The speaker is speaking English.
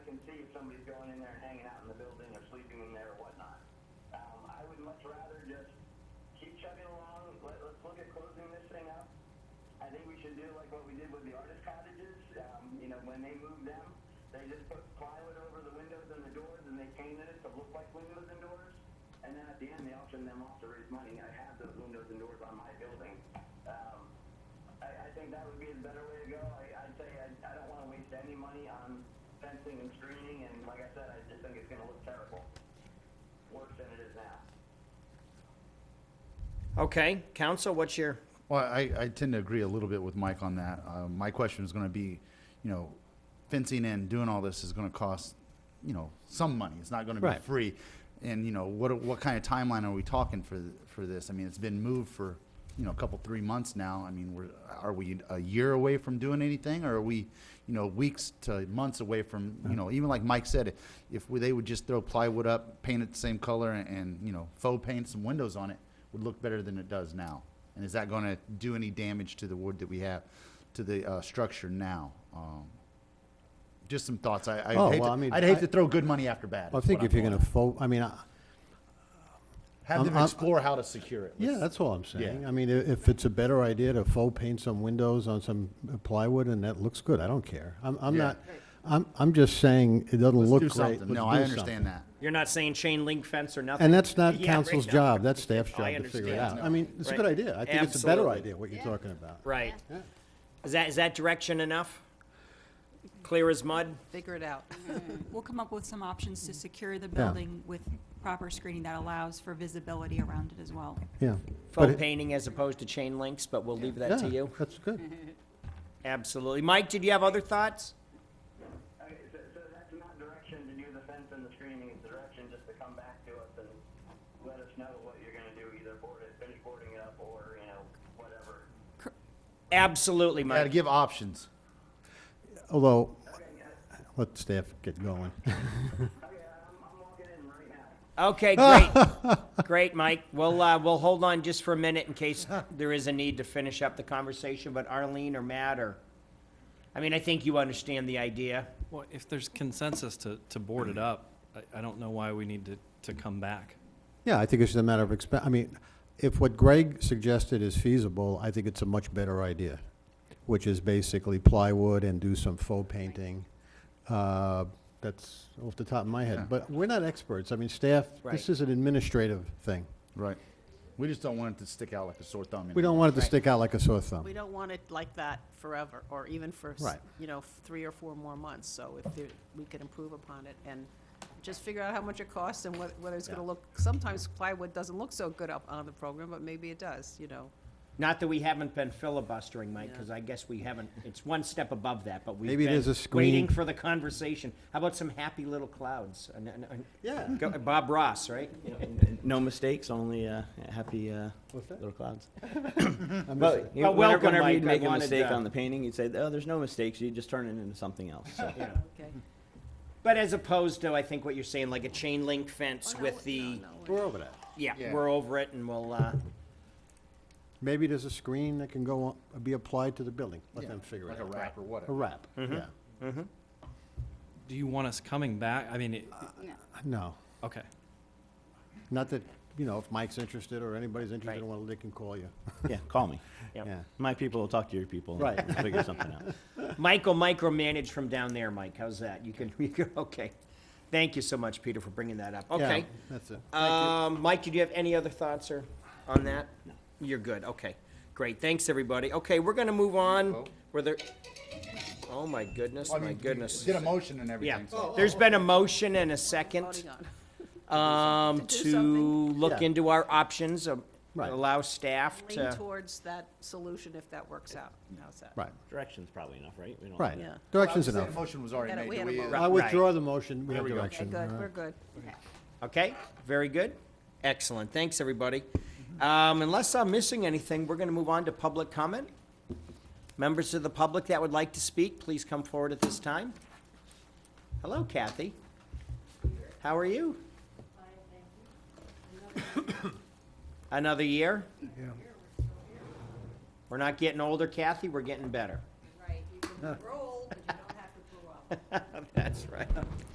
somebody's going in there and hanging out in the building or sleeping in there or whatnot. Um, I would much rather just keep chugging along. Let, let's look at closing this thing up. I think we should do like what we did with the artist cottages. Um, you know, when they moved them, they just put plywood over the windows and the doors, and they painted it to look like windows and doors. And then at the end, they auctioned them off to raise money. I have those windows and doors on my building. Um, I, I think that would be the better way to go. I, I'd say I, I don't want to waste any money on fencing and screening, and like I said, I just think it's going to look terrible, worse than it is now. Okay, council, what's your, Well, I, I tend to agree a little bit with Mike on that. Uh, my question is going to be, you know, fencing and doing all this is going to cost, you know, some money. It's not going to be Right. free. And you know, what what kind of timeline are we talking for th- for this? I mean, it's been moved for, you know, a couple three months now. I mean, we're are we a year away from doing anything, or are we, you know, weeks to months away from, you know, even like Mike said, if we, they would just throw plywood up, paint it the same color, and, and you know, faux paint some windows on it, would look better than it does now. And is that going to do any damage to the wood that we have, to the uh, structure now? Um, just some thoughts. I, I Oh, hate well, to, I mean, would hate I- to throw good money after bad. I is think what if I'm you're going going to, fo- I mean, I, at. have I'm- them I'm- explore how to secure it. yeah, Let's- that's all I'm saying. Yeah. I mean, i- if it's a better idea to faux paint some windows on some uh, plywood and that looks good, I don't care. I'm, I'm Yeah. not, I'm, I'm just saying it doesn't let's look do great. something. Let's no, do I understand something. that. you're not saying chain link fence or nothing? And that's not Yeah, council's right. job, that's staff's I job to figure it understand. out. I mean, it's a good Right. idea. I think it's a better Absolutely. idea, what you're talking about. Right. Is that, is that direction enough? Clear as mud? Figure it out. We'll come up with some options to secure the building with proper screening that allows for visibility around it as well. Yeah. But Faux it- painting as opposed to chain links, but we'll leave that to yeah, you. That's good. Mm-hmm. Absolutely. Mike, did you have other thoughts? Okay, so, so that's not direction to do the fence and the screening, it's direction just to come back to us and let us know what you're gonna do, either board it, finish boarding it up or, you know, whatever. Absolutely, Got to Mike. give options. Although, let staff get going. Okay, I'm, I'm walking in right now. Okay, great. Great, Mike. We'll, uh, we'll hold on just for a minute in case there is a need to finish up the conversation, but Arlene or Matt or, I mean, I think you understand the idea. Well, if there's consensus to, to board it up, I, I don't know why we need to, to come back. Yeah, I think it's just a matter of exp, I mean, if what Greg suggested is feasible, I think it's a much better idea, which is basically plywood and do some faux painting. Uh, That's off the top of my head, but we're not experts. I mean, staff, Right. this is an administrative thing. Right. We just don't want it to stick out like a sore thumb. We don't want it to stick out like a sore thumb. We don't want it like that forever, or even for, s- Right. you know, three or four more months. So if there- we could improve upon it and just figure out how much it costs and wheth- whether it's going to Yeah. look, sometimes plywood doesn't look so good up on the program, but maybe it does, you know. Not that we haven't been filibustering, Mike, because I guess we haven't, it's one step above that, but we've Maybe been there's a waiting screen. for the conversation. How about some happy little clouds? An- an- an- Yeah. Go- Bob Ross, right? No mistakes, only uh, happy uh, little clouds. I'm just- But you know, But whenever, welcome, whenever Mike. you'd I make a wanted, mistake uh, on the painting, you'd say, "Oh, there's no mistakes." You'd just turn it into something else. So. Okay. Mm-hmm. But as opposed to, I think what you're saying, like a chain link Oh, fence with the, We're over that. yeah, Yeah. we're over it and we'll, uh, Maybe there's a screen that can go, on- be applied to the building. Let them figure it like a out. wrap or A whatever. wrap, yeah. Do you want us coming back? I mean, it- No, okay. not that, you know, if Mike's interested or anybody's interested, Right. in one, they can call you. yeah, call me. Yep. Yeah. My people will talk to your people. and Right. we'll figure something out. Michael micromanage from down there, Mike. How's that? You can, you can, okay. Thank you so much, Peter, for bringing that up. Yeah, Okay. That's it. Um, Mike, did you have any other thoughts or on that? No. You're good. Okay. Great. Thanks, everybody. Okay, we're gonna move on. Were there? Oh, my goodness, Well, I my mean, goodness. Did a motion and Yeah, everything. Oh, so- there's been a motion and a second, Voting on. um, To do to something. look Yeah. into our options, um, Right. allow staff Lean to. towards that solution if that works out. How's that? Right, Direction's probably enough, right? We don't right. Yeah. Direction's Well, I was gonna say the enough. Motion was already We had made. a- we Do had a we, uh, motion. I withdraw the motion, we have we go. Okay, direction. good, All we're right. good. Okay, very good. Excellent. Thanks, everybody. Um, Unless I'm missing anything, we're going to move on to public comment. Members of the public that would like to speak, please come forward at this time. Hello, Kathy. How are you? Another year? We're not getting older, Kathy, we're getting better. Right, you can grow old, but you don't have to grow up. That's right.